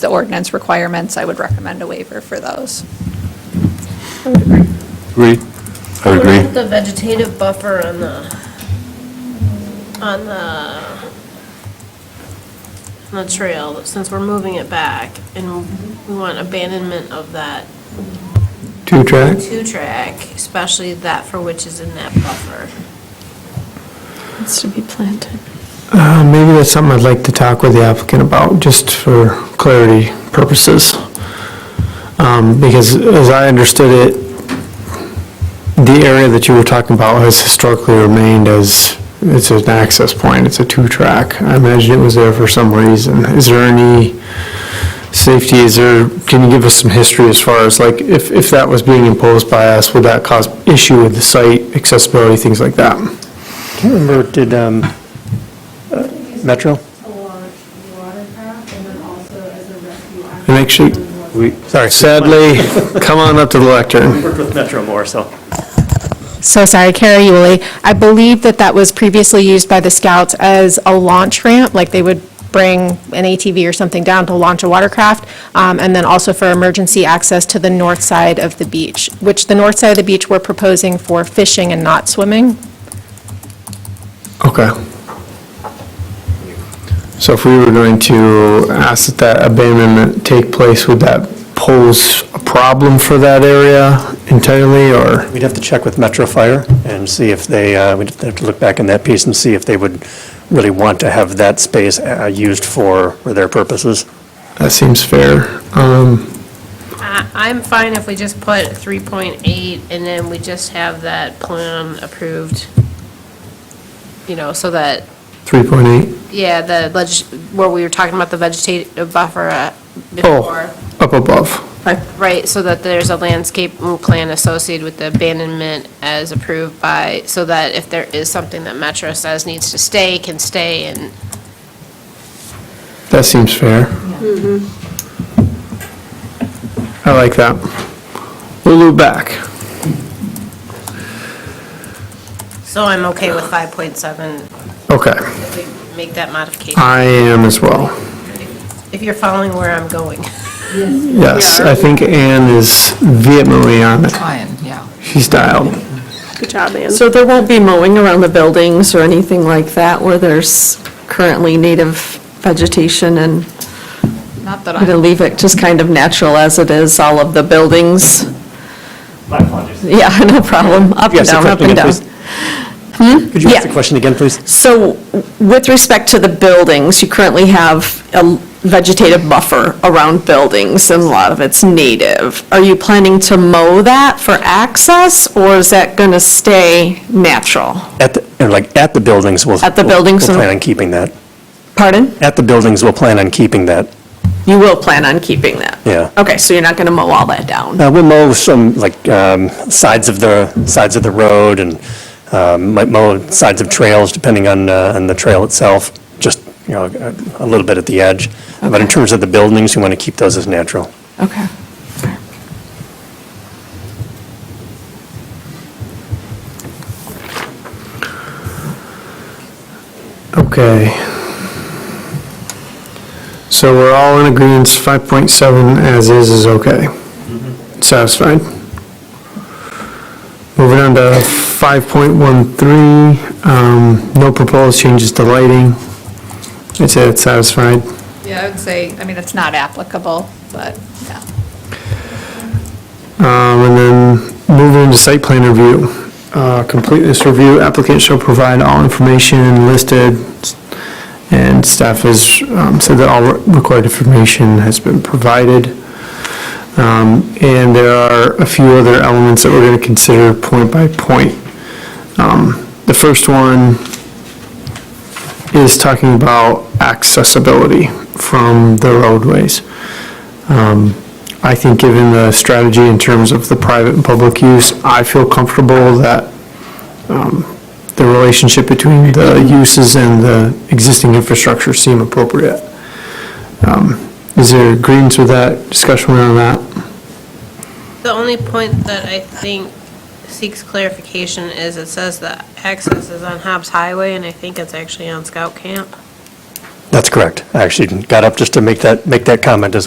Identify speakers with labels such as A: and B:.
A: the ordinance requirements, I would recommend a waiver for those.
B: Agree. I would
C: What about
B: agree.
C: The vegetative buffer on the, on the, on the trail, since we're moving it back, and we want abandonment of that
D: Two track?
C: two-track, especially that for which is in that buffer.
E: It's to be planted.
D: Uh, Maybe that's something I'd like to talk with the applicant about, just for clarity purposes. Um, Because as I understood it, the area that you were talking about has historically remained as, it's an access point, it's a two-track. I imagine it was there for some reason. Is there any safety, is there, can you give us some history as far as, like, if, if that was being imposed by us, would that cause issue with the site, accessibility, things like that?
F: Can't remember, did um, uh, Metro?
G: to launch watercraft and then also as a rescue act.
D: And actually,
F: We, sorry.
D: Sadly, come on up to the lectern.
F: Worked with Metro more, so.
H: So sorry, Kara Yuli. I believe that that was previously used by the scouts as a launch ramp, like they would bring an ATV or something down to launch a watercraft, um, and then also for emergency access to the north side of the beach, which the north side of the beach we're proposing for fishing and not swimming.
D: Okay. So if we were going to ask that that abandonment take place, would that pose a problem for that area entirely, or?
F: We'd have to check with Metro Fire and see if they, uh, we'd have to look back in that piece and see if they would really want to have that space uh, used for for their purposes.
D: That seems fair. Um,
C: I, I'm fine if we just put 3.8, and then we just have that plan approved, you know, so that
D: 3.8,
C: Yeah, the, leg- where we were talking about the vegetative buffer uh, before,
D: up above.
C: right, so that there's a landscape plan associated with the abandonment as approved by, so that if there is something that Metro says needs to stay, can stay, and
D: That seems fair. I like that. We'll loop back.
C: so I'm okay with 5.7,
D: Okay,
C: if we make that modification,
D: I am as well.
C: if you're following where I'm going.
D: Yes, I think Anne is vehemently on it.
I: Ryan, yeah.
D: She's dialed.
E: Good job, Ann.
I: So there won't be mowing around the buildings or anything like that where there's currently native vegetation and
A: Not that
I: we're going to
A: I'm,
I: leave it just kind of natural as it is, all of the buildings?
F: My apologies.
I: Yeah, no problem, up and down, up and down.
F: Could you ask the
I: Yeah.
F: question again, please?
I: So with respect to the buildings, you currently have a vegetative buffer around buildings, and a lot of it's native. Are you planning to mow that for access, or is that going to stay natural?
F: At, the or like, at the buildings, we'll.
I: At the buildings,
F: We'll
I: uh,
F: plan on keeping that.
I: Pardon?
F: At the buildings, we'll plan on keeping that.
I: You will plan on keeping that?
F: Yeah.
I: Okay, so you're not going to mow all that down?
F: Uh, We'll mow some, like, um, sides of the, sides of the road and um, might mow sides of trails, depending on, uh, on the trail itself, just, you know, a a little bit at the edge. But in terms of the buildings, we want to keep those as natural.
I: Okay.
D: Okay. So we're all in agreement, 5.7 as is is okay. Satisfied. Moving on to 5.13, um, no proposed changes to lighting. It's it, satisfied.
A: yeah, I would say, I mean, it's not applicable, but, yeah.
D: Um, And then moving into site plan review. Uh, Completeness review, applicant shall provide all information listed, and staff has um, said that all required information has been provided. Um, And there are a few other elements that we're going to consider point by point. Um, The first one is talking about accessibility from the roadways. Um, I think given the strategy in terms of the private and public use, I feel comfortable that um, the relationship between the uses and the existing infrastructure seem appropriate. Um, Is there agreement with that, discussion around that?
C: The only point that I think seeks clarification is it says that access is on Hobbs Highway, and I think it's actually on Scout Camp.
F: That's correct. I actually got up just to make that, make that comment as